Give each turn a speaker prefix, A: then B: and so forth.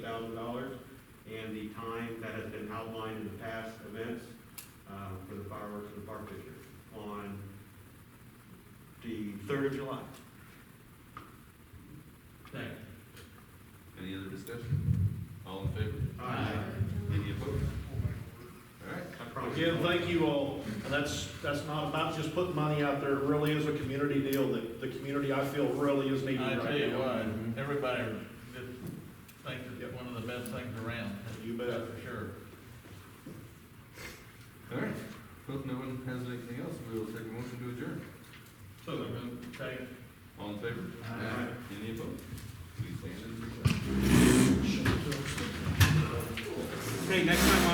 A: thousand dollars, and the time that has been outlined in the past events uh, for the fireworks in the park district on the third of July.
B: Second.
C: Any other discussion? All in favor? Any opposed? All right.
A: I promise.
D: Again, thank you all, and that's, that's not about just putting money out there, it really is a community deal that the community, I feel, really is needing
B: I
D: right now.
B: tell you what, everybody just thinks it's one of the best things around,
D: You bet.
B: that's for sure.